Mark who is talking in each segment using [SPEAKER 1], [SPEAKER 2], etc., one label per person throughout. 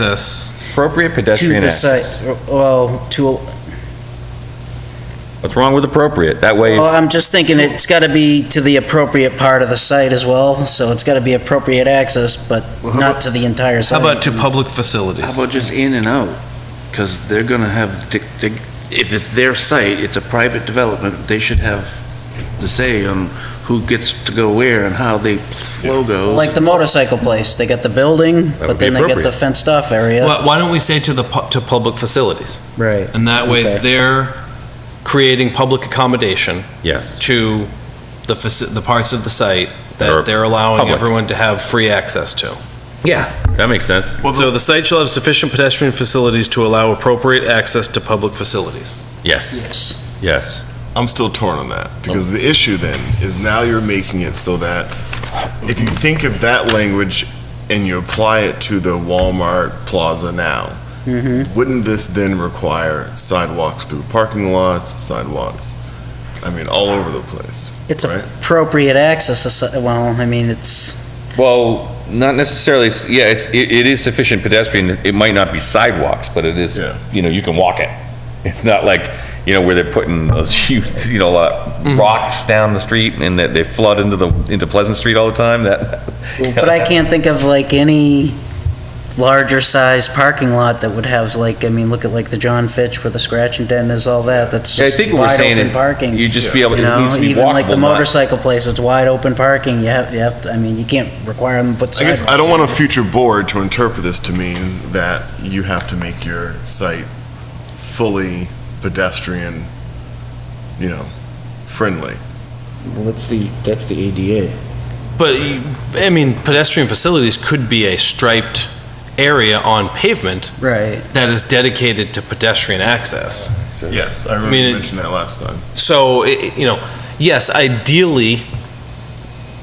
[SPEAKER 1] access.
[SPEAKER 2] Appropriate
[SPEAKER 3] to
[SPEAKER 2] pedestrian
[SPEAKER 3] the site,
[SPEAKER 2] access.
[SPEAKER 3] well, to,
[SPEAKER 2] What's wrong with appropriate? That way,
[SPEAKER 3] well, oh, I'm just thinking it's gotta be to the appropriate part of the site as well, so it's gotta be appropriate access, but
[SPEAKER 4] Well, how
[SPEAKER 3] not to the entire
[SPEAKER 1] How
[SPEAKER 3] site.
[SPEAKER 1] about to public
[SPEAKER 4] How
[SPEAKER 1] facilities?
[SPEAKER 4] about just in and out? Because they're going to have, dic- dic- if it's their site, it's a private development, they should have the say on who gets to go where and how they flow go.
[SPEAKER 3] Like the motorcycle place, they got the building,
[SPEAKER 2] would
[SPEAKER 3] but
[SPEAKER 2] be
[SPEAKER 3] then they get the
[SPEAKER 2] appropriate.
[SPEAKER 3] fenced off area.
[SPEAKER 1] Why why don't we say to the, pu- to public facilities?
[SPEAKER 3] Right.
[SPEAKER 1] And that way,
[SPEAKER 3] Okay.
[SPEAKER 1] they're creating public accommodation
[SPEAKER 2] yes.
[SPEAKER 1] to the, faci- the parts of the site
[SPEAKER 2] Or
[SPEAKER 1] that they're allowing
[SPEAKER 2] public.
[SPEAKER 1] everyone to have free access to.
[SPEAKER 2] Yeah. That makes sense.
[SPEAKER 1] So the site shall have sufficient pedestrian facilities to allow appropriate access to public facilities.
[SPEAKER 2] Yes,
[SPEAKER 3] Yes.
[SPEAKER 2] yes.
[SPEAKER 5] I'm still torn on that because the issue then is now you're making it so that if you think of that language and you apply it to the Walmart Plaza now, wouldn't this then require sidewalks through parking lots, sidewalks? I mean, all over the place.
[SPEAKER 3] It's
[SPEAKER 5] Right.
[SPEAKER 3] appropriate access, aside- well, I mean, it's,
[SPEAKER 2] Well, not necessarily, s- yeah, it's, it it is sufficient pedestrian, it might not be sidewalks, but it is,
[SPEAKER 5] Yeah.
[SPEAKER 2] you know, you can walk it. It's not like, you know, where they're putting those huge, you know, uh,
[SPEAKER 3] Mm-hmm.
[SPEAKER 2] rocks down the street and that they flood into the, into Pleasant Street all the time, that.
[SPEAKER 3] but I can't think of like any larger size parking lot that would have like, I mean, look at like the John Fitch where the scratch and dent is, all that, that's
[SPEAKER 2] Yeah, I
[SPEAKER 3] just
[SPEAKER 2] think what we're
[SPEAKER 3] wide
[SPEAKER 2] saying
[SPEAKER 3] open
[SPEAKER 2] is,
[SPEAKER 3] parking.
[SPEAKER 2] you just be able,
[SPEAKER 3] You
[SPEAKER 2] it
[SPEAKER 3] know,
[SPEAKER 2] needs to be
[SPEAKER 3] even like the
[SPEAKER 2] walkable, not.
[SPEAKER 3] motorcycle place, it's wide open parking, you have, you have, to- I mean, you can't require them to put
[SPEAKER 5] I
[SPEAKER 3] sidewalks.
[SPEAKER 5] guess I don't want a future board to interpret this to mean that you have to make your site fully pedestrian, you know, friendly.
[SPEAKER 6] That's the, that's the ADA.
[SPEAKER 1] But, I mean, pedestrian facilities could be a striped area on pavement
[SPEAKER 3] Right,
[SPEAKER 1] that is dedicated to pedestrian access.
[SPEAKER 5] Yes, I remember
[SPEAKER 1] mean,
[SPEAKER 5] you
[SPEAKER 1] it-
[SPEAKER 5] mentioned that last time.
[SPEAKER 1] So, i- i- you know, yes, ideally,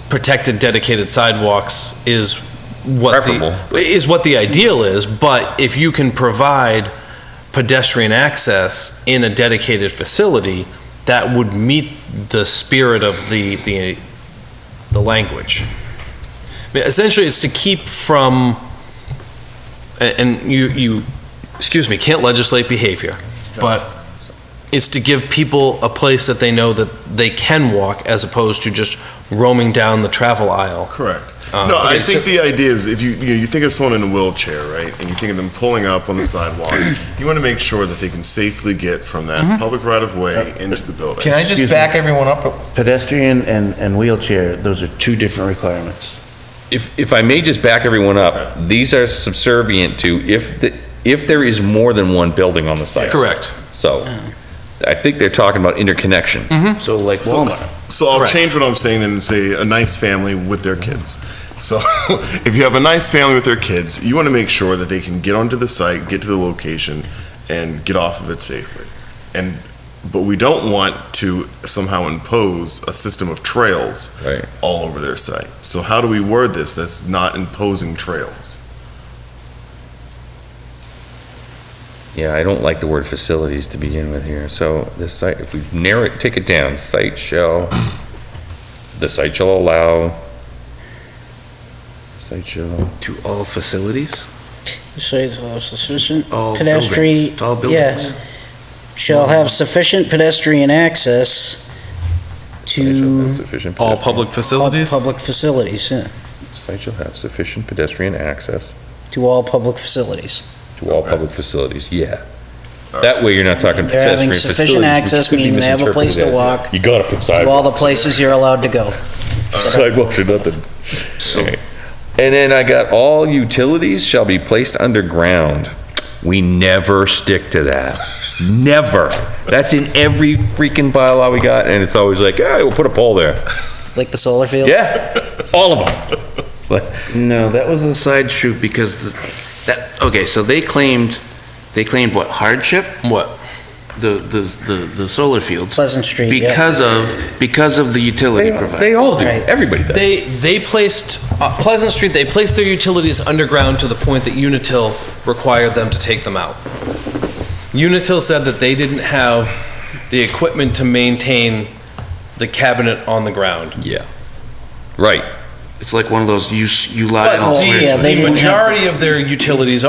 [SPEAKER 1] protected dedicated sidewalks is what
[SPEAKER 2] Preferable.
[SPEAKER 1] the, is what the ideal is, but if you can provide pedestrian access in a dedicated facility, that would meet the spirit of the, the, the language. I mean, Essentially, it's to keep from, a- and you, you, excuse me, can't legislate behavior, but it's to give people a place that they know that they can walk as opposed to just roaming down the travel aisle.
[SPEAKER 5] Correct.
[SPEAKER 1] Uh,
[SPEAKER 5] No, I
[SPEAKER 1] okay,
[SPEAKER 5] think the idea is if you, you know, you think of someone in a wheelchair, right, and you think of them pulling up on the sidewalk, you want to make sure that they can safely get from that public right of way into the building.
[SPEAKER 7] Can I just
[SPEAKER 4] Excuse me.
[SPEAKER 7] back everyone up?
[SPEAKER 4] Pedestrian and, and wheelchair, those are two different requirements.
[SPEAKER 2] If, if I may just back everyone up, these are subservient to if, the if there is more than one building on the site.
[SPEAKER 1] Correct.
[SPEAKER 2] So, I think they're talking about interconnection.
[SPEAKER 4] So like
[SPEAKER 5] So,
[SPEAKER 4] Walmart.
[SPEAKER 5] so I'll
[SPEAKER 1] Correct.
[SPEAKER 5] change what I'm saying then and say a nice family with their kids. So if you have a nice family with their kids, you want to make sure that they can get onto the site, get to the location, and get off of it safely. And but we don't want to somehow impose a system of trails
[SPEAKER 2] Right.
[SPEAKER 5] all over their site. So how do we word this? That's not imposing trails.
[SPEAKER 2] Yeah, I don't like the word facilities to begin with here, so the site, if we narrow it, take it down, site shall, the site shall allow, site shall,
[SPEAKER 4] To all facilities?
[SPEAKER 3] so it's all sufficient
[SPEAKER 4] All buildings,
[SPEAKER 3] pedestrian,
[SPEAKER 4] All
[SPEAKER 3] yes.
[SPEAKER 4] buildings?
[SPEAKER 3] Shall have sufficient pedestrian access
[SPEAKER 2] site shall have
[SPEAKER 3] to
[SPEAKER 5] uh,
[SPEAKER 2] sufficient.
[SPEAKER 1] All
[SPEAKER 2] pedestrian-
[SPEAKER 1] public
[SPEAKER 3] all
[SPEAKER 1] facilities?
[SPEAKER 3] public facilities, yeah,
[SPEAKER 2] Site shall have sufficient pedestrian access
[SPEAKER 3] to all public facilities.
[SPEAKER 2] to all public facilities, yeah. That way you're not talking
[SPEAKER 3] They're having
[SPEAKER 2] pedestrian facilities.
[SPEAKER 3] sufficient access,
[SPEAKER 2] which could be
[SPEAKER 3] meaning they have a place to
[SPEAKER 2] misinterpreted as,
[SPEAKER 3] walk.
[SPEAKER 2] You gotta put
[SPEAKER 3] To all
[SPEAKER 2] sidewalks,
[SPEAKER 3] the places you're allowed to go.
[SPEAKER 2] sidewalks or nothing. Okay. And then I got all utilities shall be placed underground. We never stick to that. Never. That's in every freaking bylaw we got, and it's always like, yeah, we'll put a pole there.
[SPEAKER 3] Like the solar field?
[SPEAKER 2] Yeah, all of them. It's like,
[SPEAKER 4] No, that was a side shoot because the- that, okay, so they claimed, they claimed what, hardship?
[SPEAKER 1] What?
[SPEAKER 4] The, the, the- the solar fields?
[SPEAKER 3] Pleasant Street, yeah.
[SPEAKER 4] Because of, because of the utility provider.
[SPEAKER 2] They all do.
[SPEAKER 3] Right.
[SPEAKER 2] Everybody does.
[SPEAKER 1] They, they placed, uh, Pleasant Street, they placed their utilities underground to the point that Unitil required them to take them out. Unitil said that they didn't have the equipment to maintain the cabinet on the ground.
[SPEAKER 2] Yeah. Right.
[SPEAKER 4] It's like one of those, you, s- you lie
[SPEAKER 1] But
[SPEAKER 4] and I'll swear to
[SPEAKER 3] yeah,
[SPEAKER 4] it.
[SPEAKER 3] they
[SPEAKER 1] the
[SPEAKER 3] didn't have-
[SPEAKER 1] majority of their utilities